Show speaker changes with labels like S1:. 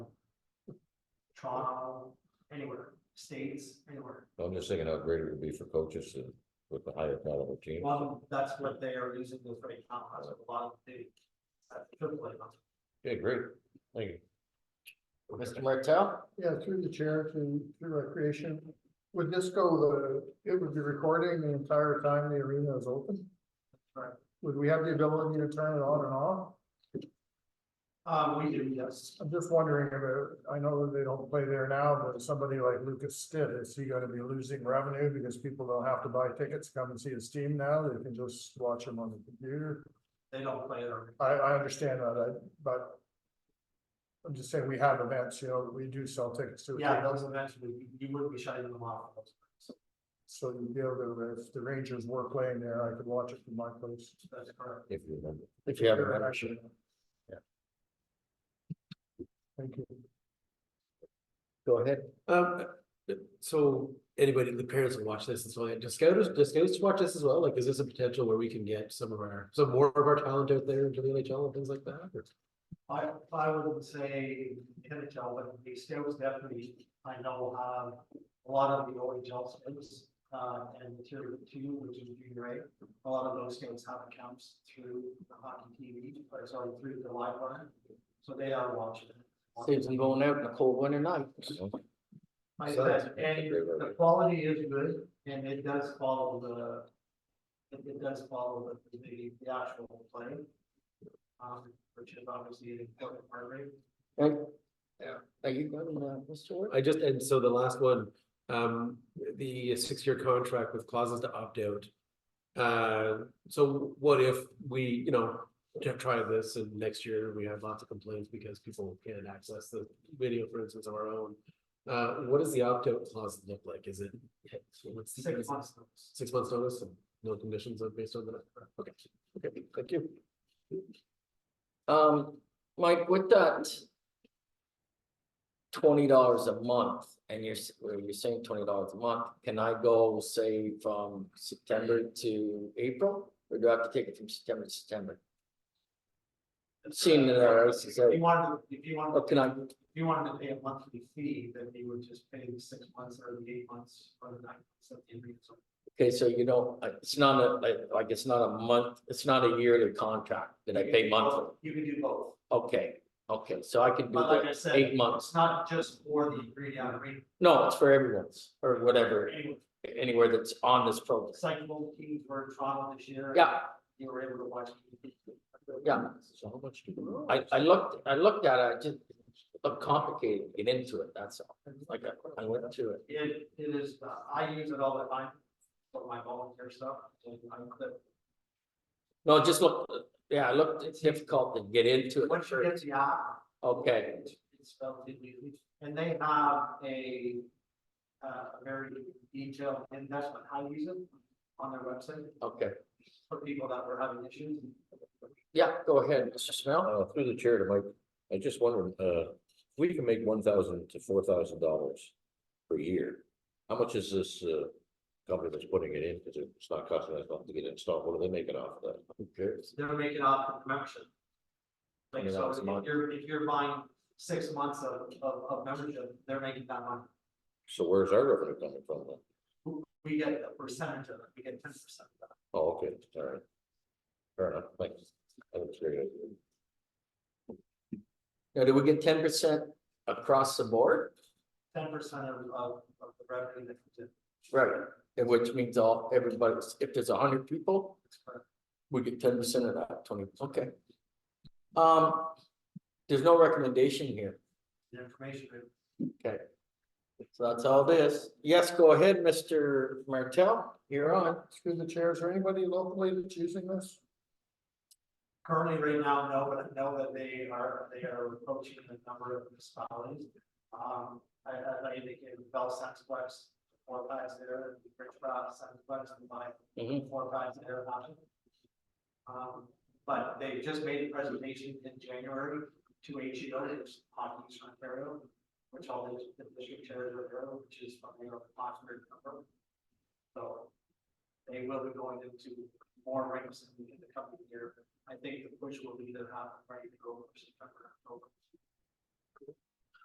S1: Toronto, anywhere, states, anywhere.
S2: I'm just thinking how great it would be for coaches and with the higher caliber team.
S1: Well, that's what they are using this right now, that's what a lot of the. uh, triple A ones.
S2: Yeah, great. Thank you.
S3: Mr. Martell?
S4: Yeah, through the chair to, to recreation. Would this go the, it would be recording the entire time the arena is open?
S1: Right.
S4: Would we have the ability to turn it on and off?
S1: Um, we do, yes,
S4: I'm just wondering if, it- I know that they don't play there now, but if somebody like Lucas Stitt, is he gonna be losing revenue because people don't have to buy tickets, to come and see his team now? They can just watch him on the computer.
S1: they don't play there.
S4: I, I understand that, I, but I'm just saying we have events, you know, that we do sell tickets to.
S1: Yeah, those eventually, you- you would be shutting them off.
S4: So you'd be able to, if the Rangers were playing there, I could watch it from my place.
S1: That's correct.
S2: If you remember.
S3: If you have a
S4: Sure, I
S3: membership.
S4: should. Thank you.
S3: Go ahead.
S5: Um, uh, so anybody, the parents will watch this and so on. Does scouts, does scouts watch this as well? Like, is this a potential where we can get some of our, some more of our talent out there into the NHL and things like that? Or-
S1: I, I wouldn't say NHL, but the scouts definitely, I know, um, a lot of the OHL scouts, uh, and tier two, which is junior A. A lot of those scouts have accounts through the hockey TV, or sorry, through the live line, so they are watching. it.
S3: Saves them going out in a cold winter night.
S1: I
S2: So that's-
S1: said,
S2: that's a
S1: and
S2: great
S1: the
S2: idea.
S1: quality is good, and it does follow the, it, it does follow the, the, the actual play. Um, which is obviously an important part of it.
S3: Right? Yeah. Are you going, uh, Mr. Ward?
S5: I just, and so the last one, um, the six-year contract with clauses to opt out. Uh, so what if we, you know, t- try this and next year we have lots of complaints because people can't access the video, for instance, of our own. Uh, what does the opt-out clause look like? Is it? what's the-
S1: Six months. notice.
S5: Six months notice and no conditions are based on that. Okay, okay, thank you.
S3: Um, Mike, with that. Twenty dollars a month and you're, s- well, you're saying twenty dollars a month, can I go say from September to April? Or do I have to take it from September to September? Seeing that uh, our
S1: Uh, If
S3: RCCA,
S1: you wanted, if you
S3: or
S1: wanted,
S3: oh, can I,
S1: if you wanted to pay a monthly fee, then you would just pay the six months or the eight months or the nine months of the agreement. So
S3: okay, so you don't, I- it's not a, like- like, it's not a month, it's not a yearly contract that I
S1: you can
S3: pay
S1: do both.
S3: monthly?
S1: You can do both,
S3: Okay, okay, so I can do
S1: but like I
S3: the
S1: said,
S3: eight
S1: it's
S3: months,
S1: not just for the ingredient, rate.
S3: no, it's for everyone's or whatever,
S1: Anyway,
S3: anywhere that's on this program.
S1: cycle teams were in Toronto this year.
S3: Yeah,
S1: you were able to watch. it.
S3: yeah,
S5: So how much do you?
S3: I, I looked, I looked at it, I just, looked complicated, to get into it, that's all, like, I, I went to it.
S1: It, it is, uh, I use it all the time for my volunteer stuff. and I clip-
S3: No, it just look, yeah, I looked, it's difficult to get into it,
S1: Once you
S3: sure,
S1: get to the app.
S3: okay,
S1: It's it's relatively easy. And they have a, uh, a very detailed, and that's what I use it on their website
S3: okay,
S1: for people that were having issues.
S3: yeah, go ahead, Mr. Smell,
S2: Uh, through the chair to Mike, I just wondered, uh, if we can make one thousand to four thousand dollars per year. How much is this, uh, company that's putting it in? Cause it's not costing us nothing to get it installed. What do they make it off of that? Who cares?
S1: They're making off the membership. Like,
S2: Yeah,
S1: so
S2: that's
S1: if
S2: month.
S1: you're, if you're buying six months of, of, of membership, they're making that money.
S2: So where's our revenue coming from then?
S1: We get a percentage of it, we get ten percent of that.
S2: Oh, okay, all right. Fair enough, thanks. I was curious.
S3: now, do we get ten percent across the board?
S1: Ten percent of, of, of the revenue that comes in.
S3: Right. And Which means all, everybody, if there's a hundred people, we get ten percent of that, twenty, okay. Um, there's no recommendation here.
S1: The information,
S3: So that's all this. Yes, go ahead, Mr. Martell, you're on.
S4: Through the chair, is there anybody locally that's using this?
S1: currently right now, no, but I know that they are, they are approaching the number of municipalities. Um, I, I, I indicated Bell Sense West, four guys there, Richcraft, Sense West, and my
S3: Mhm.
S1: four guys there. not it. Um, but they just made a presentation in January to HEO, which is Hockey East Ontario, which all the the district chairs are there, which is from the Oxford number. So they will be going into more ranks in the coming year. I think the push will be to have ready to go for September, October.